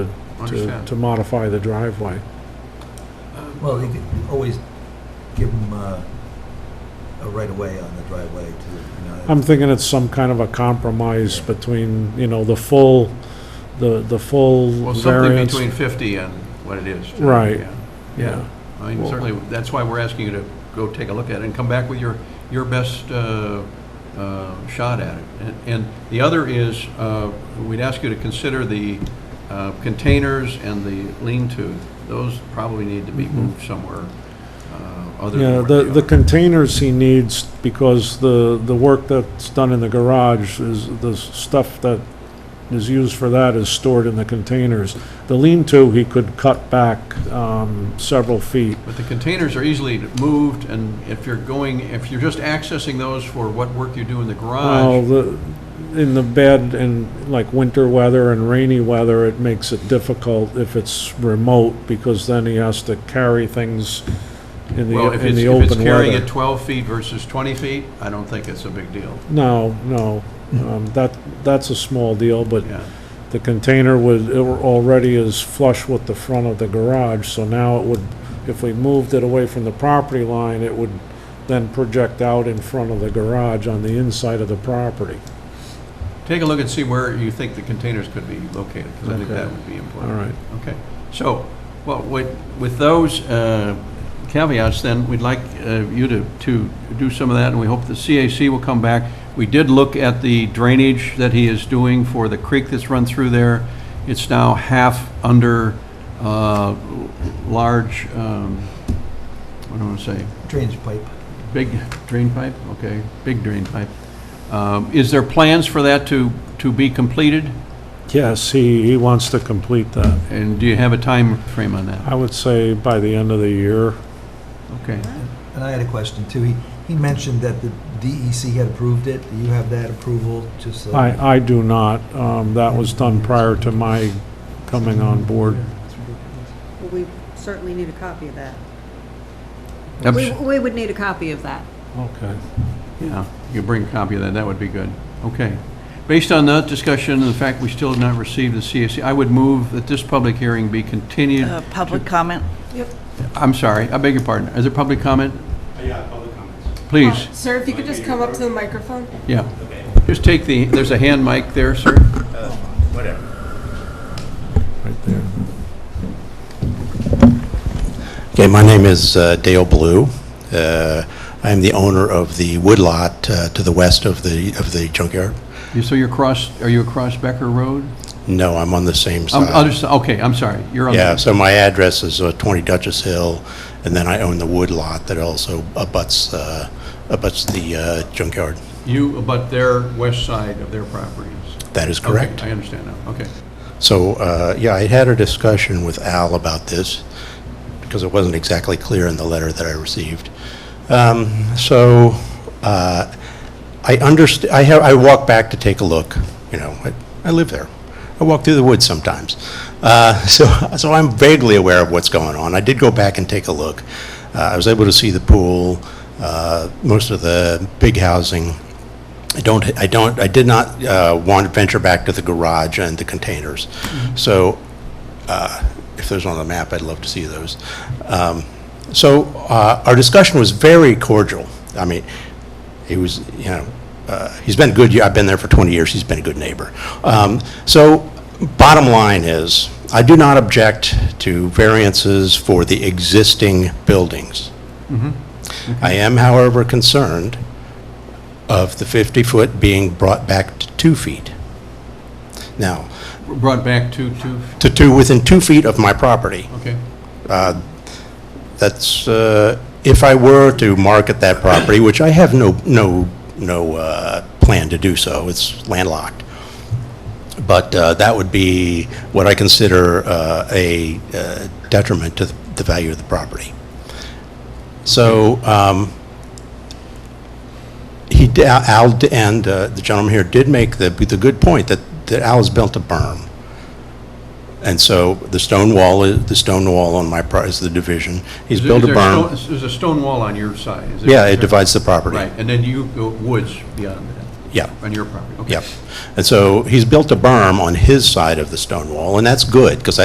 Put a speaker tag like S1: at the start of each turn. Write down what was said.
S1: to,
S2: Understand.
S1: to modify the driveway.
S3: Well, you could always give uh, them a right-of-way on the driveway to, you know.
S1: I'm thinking it's some kind of a compromise between, you know, the full, the, the full
S2: Well, something
S1: variance.
S2: between 50 and what it is. today,
S1: Right.
S2: yeah. Yeah, I mean, certainly, that's why we're asking you to go take a look at it and come back with your, your best uh, uh, shot at it. And- And the other is, uh, we'd ask you to consider the uh, containers and the lean-to. Those probably need to be moved somewhere uh, other
S1: Mm-hmm. Yeah,
S2: than where
S1: the,
S2: they
S1: the
S2: are.
S1: containers he needs, because the, the work that's done in the garage is, the stuff that is used for that is stored in the containers. The lean-to, he could cut back, um, several feet.
S2: But the containers are easily moved, and if you're going, if you're just accessing those for what work you do in the
S1: Well,
S2: garage,
S1: the, in the bed and like winter weather and rainy weather, it makes it difficult if it's remote, because then he has to carry things in the,
S2: well, if
S1: in
S2: it's,
S1: the
S2: if it's
S1: open
S2: carrying it
S1: weather.
S2: 12 feet versus 20 feet, I don't think it's a big deal,
S1: No, no, um, that, that's a small deal, but
S2: yeah.
S1: the container was, it were- already is flush with the front of the garage, so now it would, if we moved it away from the property line, it would then project out in front of the garage on the inside of the property.
S2: Take a look and see where you think the containers could be located, because I think
S1: Okay.
S2: that would be
S1: All
S2: important.
S1: right.
S2: Okay, so, well, with, with those uh, caveats, then, we'd like uh, you to, to do some of that, and we hope the CAC will come back. We did look at the drainage that he is doing for the creek that's run through there. It's now half under uh, large, um, what do I want to say?
S3: Drainage pipe.
S2: Big drain pipe? Okay, big drain pipe. Um, Is there plans for that to, to be completed?
S1: Yes, he, he wants to complete that.
S2: And do you have a time frame on that?
S1: I would say by the end of the year.
S2: Okay.
S3: And I had a question too. He, he mentioned that the DEC had approved it. Do you have that approval, just so?
S1: I, I do not. Um, that was done prior to my coming on board.
S4: Well, we certainly need a copy of that.
S2: Abs-
S4: We, we would need a copy of that.
S1: Okay.
S2: Yeah, you bring a copy of that, that would be good. Okay. Based on that discussion and the fact we still have not received the CAC, I would move that this public hearing be continued.
S5: Uh, Public comment?
S2: I'm sorry, I beg your pardon. Is there public comment?
S6: Yeah, public comments.
S2: Please,
S7: Sir, if you could just come up to the microphone?
S2: yeah. Just take the, there's a hand mic there, sir.
S6: Whatever.
S1: Right there.
S8: Okay, my name is uh, Dale Blue. Uh, I am the owner of the woodlot uh, to the west of the, of the junkyard.
S2: You- So you're across, are you across Becker Road?
S8: No, I'm on the same
S2: I'm- I'll
S8: side.
S2: just- Okay, I'm sorry, you're on. the-
S8: Yeah, so my address is uh, 20 Duchess Hill, and then I own the woodlot that also abuts, uh, abuts the uh, junkyard.
S2: You abut their west side of their properties.
S8: That is correct.
S2: Okay, I understand now, okay.
S8: So, uh, yeah, I had a discussion with Al about this, because it wasn't exactly clear in the letter that I received. Um, So, uh, I underst, I have, I walk back to take a look, you know, I- I live there. I walk through the woods sometimes. Uh, So, so I'm vaguely aware of what's going on. I did go back and take a look. Uh, I was able to see the pool, uh, most of the big housing, I don't, I don't, I did not uh, want to venture back to the garage and the containers. So uh, if there's on the map, I'd love to see those. Um, So uh, our discussion was very cordial. I mean, he was, you know, uh, he's been a good, I've been there for 20 years, he's been a good neighbor. Um, So bottom line is, I do not object to variances for the existing buildings. I am, however, concerned of the 50-foot being brought back to two feet. Now,
S2: Brought back to, to,
S8: to two, within two feet of my property,
S2: okay.
S8: that's, uh, if I were to market that property, which I have no, no, no uh, plan to do so, it's landlocked, but uh, that would be what I consider uh, a uh, detriment to the the value of the property. So um, he, d- Al, d- and uh, the gentleman here did make the, the good point that that Al has built a berm. And so the stone wall, is the stone wall on my, pro- is the division. He's
S2: Is-
S8: built a
S2: is there
S8: berm.
S2: stone- There's a stone wall on your side, is there?
S8: Yeah, it divides the property.
S2: Right, and then you go woods beyond that,
S8: Yeah.
S2: on your property, okay.
S8: Yep. And so he's built a berm on his side of the stone wall, and that's good, because